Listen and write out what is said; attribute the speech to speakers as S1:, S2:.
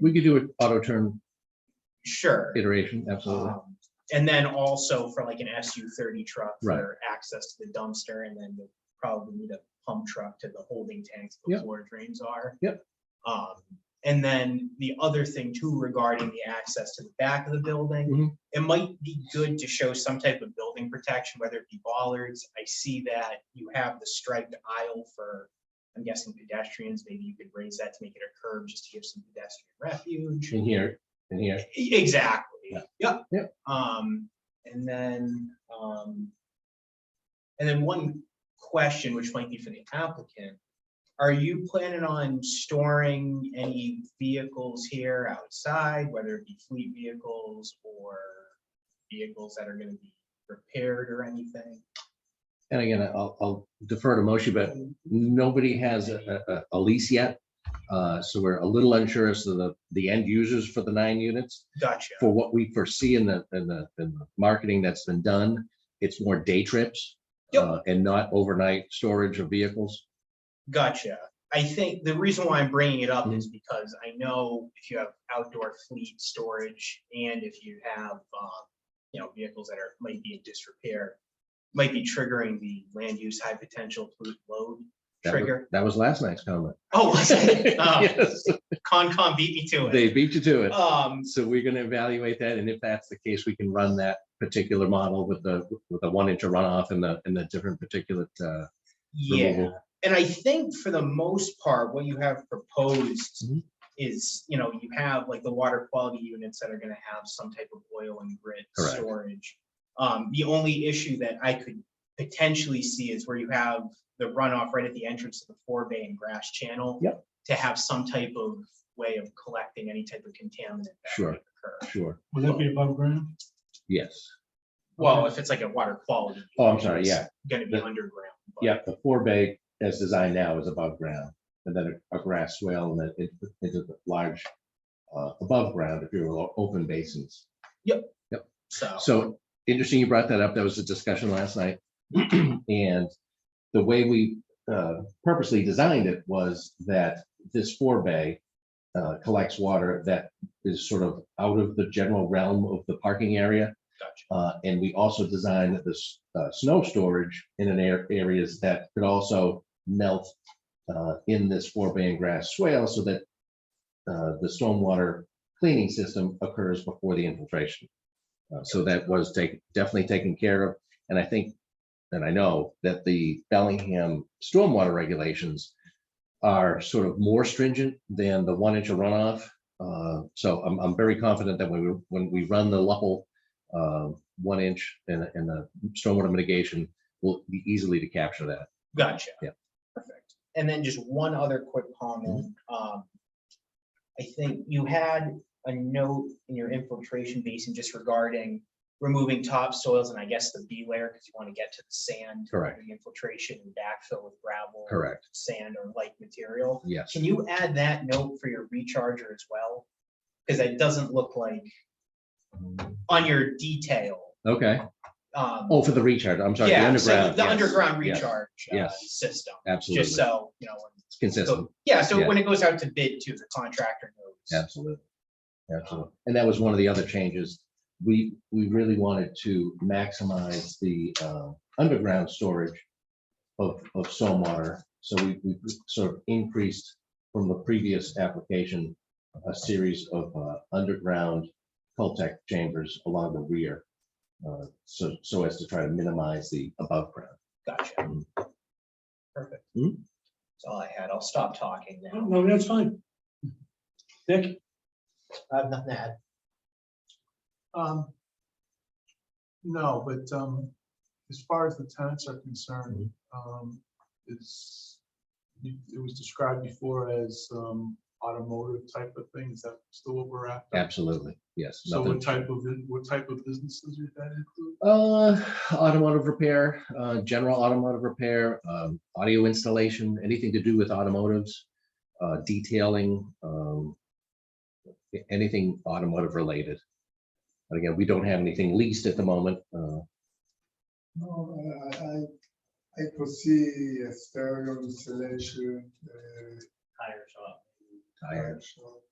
S1: we could do an auto turn
S2: Sure.
S1: iteration, absolutely.
S2: Um, And then also for like an SU thirty truck
S1: Right.
S2: for access to the dumpster and then you'll probably need a pump truck to the holding tanks
S1: Yep.
S2: before drains are.
S1: Yep.
S2: Um, and then the other thing too regarding the access to the back of the building,
S1: Mhm.
S2: it might be good to show some type of building protection, whether it be bollards. I see that you have the striped aisle for, I'm guessing pedestrians, maybe you could raise that to make it a curb just to give some pedestrian refuge.
S1: In here, in here,
S2: E- Exactly,
S1: Yeah.
S2: yep.
S1: Yep.
S2: Um, and then, um. And then one question, which might be for the applicant, are you planning on storing any vehicles here outside, whether it be fleet vehicles or? Vehicles that are gonna be repaired or anything?
S1: and again, I'll, I'll defer to Moshe, but nobody has a, a- a, a lease yet. Uh, so we're a little unsure as to the, the end users for the nine units.
S2: Gotcha,
S1: For what we foresee in the, in the, in the marketing that's been done, it's more day trips.
S2: Yep.
S1: uh, And not overnight storage of vehicles.
S2: gotcha. I think the reason why I'm bringing it
S1: Hmm.
S2: up is because I know if you have outdoor fleet storage and if you have, um. you know, vehicles that are, might be in disrepair, might be triggering the land use high potential pollute load
S1: That was-
S2: trigger.
S1: That was last night's comment.
S2: Oh, was it? Oh,
S1: Yes,
S2: Concom beat me to
S1: They
S2: it.
S1: beat you to it.
S2: Um,
S1: So we're gonna evaluate that, and if that's the case, we can run that particular model with the, with the one inch of runoff and the, and the different particulate, uh,
S2: yeah,
S1: removal.
S2: and I think for the most part, what you have proposed
S1: Mhm.
S2: is, you know, you have like the water quality units that are gonna have some type of oil and grit
S1: Correct.
S2: storage. Um, the only issue that I could potentially see is where you have the runoff right at the entrance to the four bay and grass channel.
S1: Yep.
S2: To have some type of way of collecting any type of contaminant. that
S1: Sure.
S2: might occur.
S1: Sure,
S3: Would that be above ground?
S1: yes.
S2: Well, if it's like a water quality.
S1: Oh, I'm
S2: unit,
S1: sorry,
S2: it's
S1: yeah.
S2: Gonna be
S1: The-
S2: underground. but-
S1: Yeah, the four bay as designed now is above ground, and then a a grass swale, and then it, it's a large, uh, above ground, if you will, open basins.
S2: So,
S1: So interesting you brought that up. That was a discussion last night. And the way we uh, purposely designed it was that this four bay uh, collects water that is sort of out of the general realm of the parking area.
S2: Gotcha.
S1: Uh, And we also designed this uh, snow storage in an air areas that could also melt uh, in this four bay and grass swale so that uh, the stormwater cleaning system occurs before the infiltration. Uh, So that was taken, definitely taken care of. And I think, and I know that the Bellingham stormwater regulations are sort of more stringent than the one inch of runoff. Uh, So I'm, I'm very confident that when we, when we run the Luppel uh, one inch and, and the stormwater mitigation will be easily to capture that.
S2: gotcha.
S1: Yeah.
S2: Perfect. And then just one other quick comment.
S1: Mm-hmm.
S2: Um, I think you had a note in your infiltration basin just regarding removing topsoils and I guess the B layer because you want to get to the sand.
S1: Correct.
S2: The infiltration and backfill with gravel.
S1: Correct.
S2: Sand or like material.
S1: Yes.
S2: Can you add that note for your recharger as well? Because that doesn't look like on your detail.
S1: Okay.
S2: um,
S1: Oh, for the recharge. I'm sorry, the
S2: Yeah, so
S1: underground.
S2: the
S1: yes,
S2: underground
S1: yes,
S2: recharge uh,
S1: yes.
S2: system,
S1: Absolutely.
S2: just uh, so, you know. when-
S1: It's consistent.
S2: so- Yeah, so
S1: Yeah.
S2: when it goes out to bid to the contractor knows.
S1: Absolutely. Absolutely. And that was one of the other changes. We, we really wanted to maximize the uh, underground storage of, of stormwater. So we, we sort of increased from the previous application, a series of uh, underground Coltech chambers along the rear. uh, So, so as to try to minimize the above ground.
S2: Gotcha.
S1: Mm.
S2: Perfect.
S1: Mm.
S2: That's all I had. I'll stop talking now.
S3: No, that's fine. Dick?
S2: I have nothing to add.
S4: Um, no, but, um, as far as the tenants are concerned,
S3: Mm-hmm.
S4: um, it's, it it was described before as, um, automotive type of thing. Is that still what we're after?
S1: Absolutely. Yes.
S4: So
S1: nothing-
S4: what type of, what type of businesses would that include?
S1: Uh, automotive repair, uh, general automotive repair, um, audio installation, anything to do with automotives, uh, detailing, um, a- anything automotive related. But again, we don't have anything leased at the moment. Uh,
S5: No, I, I, I could see a stereo installation, uh,
S3: Tire shop.
S1: I-
S5: shop,